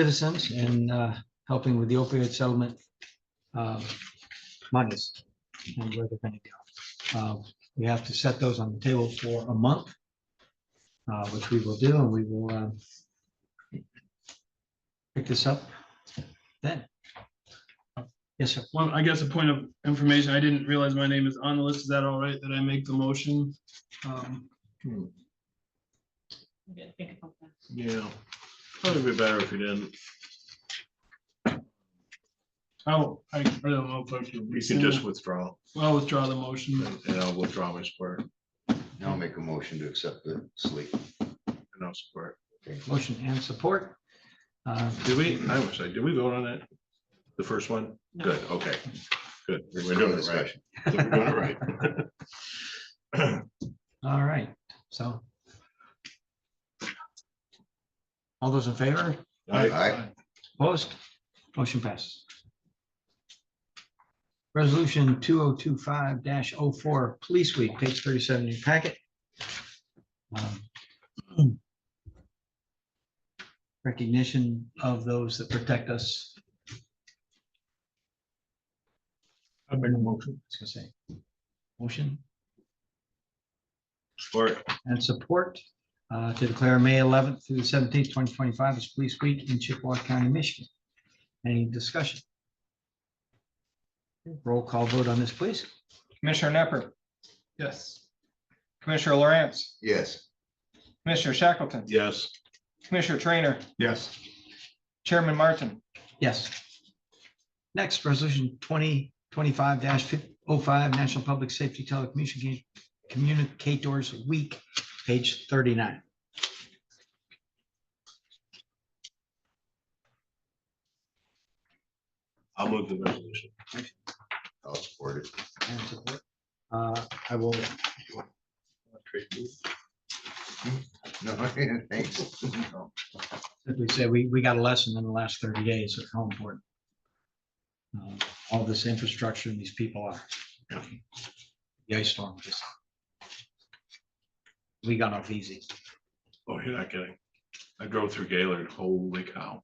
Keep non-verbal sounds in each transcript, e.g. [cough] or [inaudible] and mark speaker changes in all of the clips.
Speaker 1: citizens in uh, helping with the opioid settlement um, monies and where they're going to go. Uh, We have to set those on the table for a month, uh, which we will do, and we will uh, pick this up then. Yes, sir.
Speaker 2: Well, I guess a point of information, I didn't realize my name is on the list. Is that all right that I make the motion? Um,
Speaker 3: I'm gonna think about that.
Speaker 4: Yeah, probably be better if you didn't.
Speaker 2: Oh, I I don't know if I should.
Speaker 4: You can just withdraw
Speaker 2: Well, withdraw the motion.
Speaker 4: and and I'll withdraw my support
Speaker 5: I'll make a motion to accept the sleep.
Speaker 4: and I'll support.
Speaker 1: Motion and support. Uh,
Speaker 4: Did we, I was like, did we vote on it? The first one?
Speaker 3: No.
Speaker 4: Good, okay. Good. We're doing it right.
Speaker 5: Discussion.
Speaker 4: [laughs] We're doing it right.
Speaker 1: All right, so. All those in favor,
Speaker 4: I,
Speaker 5: Aye.
Speaker 1: opposed, motion passes. Resolution two oh two five 4 Police Week, page thirty-seven in your packet. Um, [clears throat] Recognition of those that protect us,
Speaker 2: I made a motion.
Speaker 1: I was gonna say. Motion?
Speaker 4: support,
Speaker 1: and support uh, to declare May eleventh through the seventeenth, twenty twenty-five as Police Week in Chippewa County, Michigan. Any discussion? Roll call vote on this, please.
Speaker 6: Commissioner Nepper,
Speaker 2: Yes.
Speaker 6: Commissioner Lawrence,
Speaker 5: Yes,
Speaker 6: Commissioner Shackleton,
Speaker 4: yes.
Speaker 6: Commissioner Trainer,
Speaker 4: Yes.
Speaker 6: Chairman Martin,
Speaker 1: Yes. Next, resolution twenty twenty-five 5 National Public Safety Telecommunication Communicators Week, page thirty-nine.
Speaker 4: I'll move the resolution.
Speaker 5: I'll support it. [laughs]
Speaker 1: And support. Uh, I will,
Speaker 5: No, thanks. No.
Speaker 1: simply say we, we got a lesson in the last thirty days of how important uh, all this infrastructure and these people are. The ice storm just. We got off easy.
Speaker 4: Oh, you're not kidding. I drove through Gaylord, holy cow.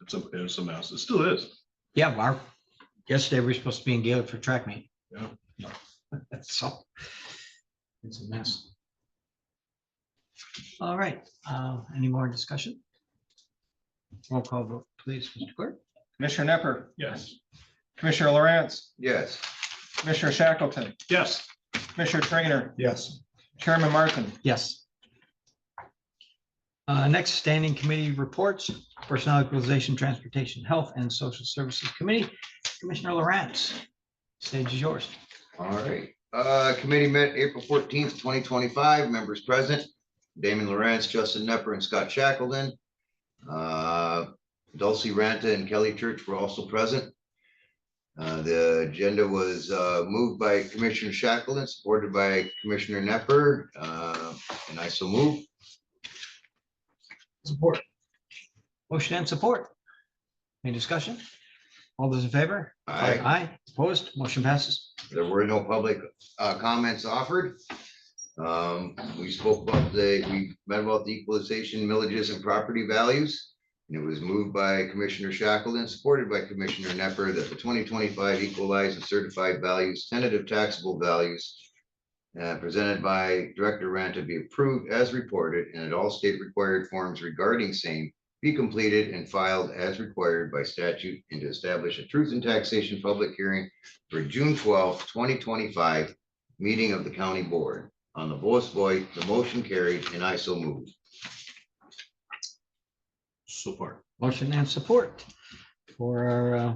Speaker 4: It's a, it's a mess. It still is.
Speaker 1: Yeah, well, our, yesterday we were supposed to be in Gaelic for track meet.
Speaker 4: Yeah.
Speaker 1: No, [laughs] That's all. It's a mess. All right, uh, any more discussion? Roll call vote, please, Mr. Clerk.
Speaker 6: Commissioner Nepper,
Speaker 2: Yes.
Speaker 6: Commissioner Lawrence,
Speaker 5: Yes,
Speaker 6: Commissioner Shackleton,
Speaker 4: Yes.
Speaker 6: Commissioner Trainer,
Speaker 4: Yes.
Speaker 6: Chairman Martin,
Speaker 1: Yes. Uh, Next, standing committee reports, Personnel Equalization, Transportation, Health, and Social Services Committee. Commissioner Lawrence, stage is yours.
Speaker 5: all right. Uh, committee met April fourteenth, twenty twenty-five, members present, Damon Lawrence, Justin Nepper, and Scott Shackleton. Uh, Dulcie Ranta and Kelly Church were also present. Uh, the agenda was, uh, moved by Commissioner Shackleton, supported by Commissioner Nepper, uh, and I so move.
Speaker 1: Support. Motion and support. Any discussion? All those in favor?
Speaker 5: Aye.
Speaker 1: Aye, opposed, motion passes.
Speaker 5: There were no public uh, comments offered. Um, We spoke about the, we met about the equalization, millages and property values. And it was moved by Commissioner Shackleton, supported by Commissioner Nepper, that the twenty twenty-five equalized and certified values, tentative taxable values uh, presented by Director Ranta be approved as reported and at all state required forms regarding same be completed and filed as required by statute and to establish a truth in taxation public hearing for June twelfth, twenty twenty-five, meeting of the county board. On the voice vote, the motion carried and I so move.
Speaker 4: Support.
Speaker 1: Motion and support for our uh,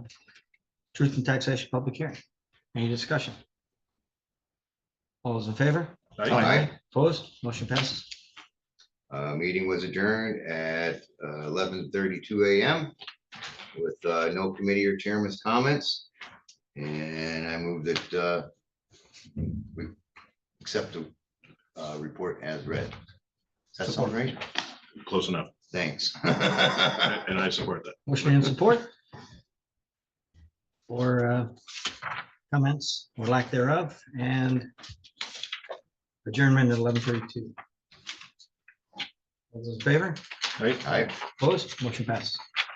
Speaker 1: Truth and Taxation Public Hearing. Any discussion? All those in favor?
Speaker 4: Aye.
Speaker 1: Opposed, motion passes.
Speaker 5: Uh, meeting was adjourned at uh, eleven thirty-two AM with, uh, no committee or chairman's comments. And I move that, uh, we accept the, uh, report as read. Does that sound right?
Speaker 4: Close enough.
Speaker 5: Thanks. [laughs]
Speaker 4: And and I support that.
Speaker 1: Motion and support. For uh, comments or lack thereof and adjournment at eleven thirty-two. All those in favor?
Speaker 4: right?
Speaker 5: Aye.
Speaker 1: Opposed? Motion passed.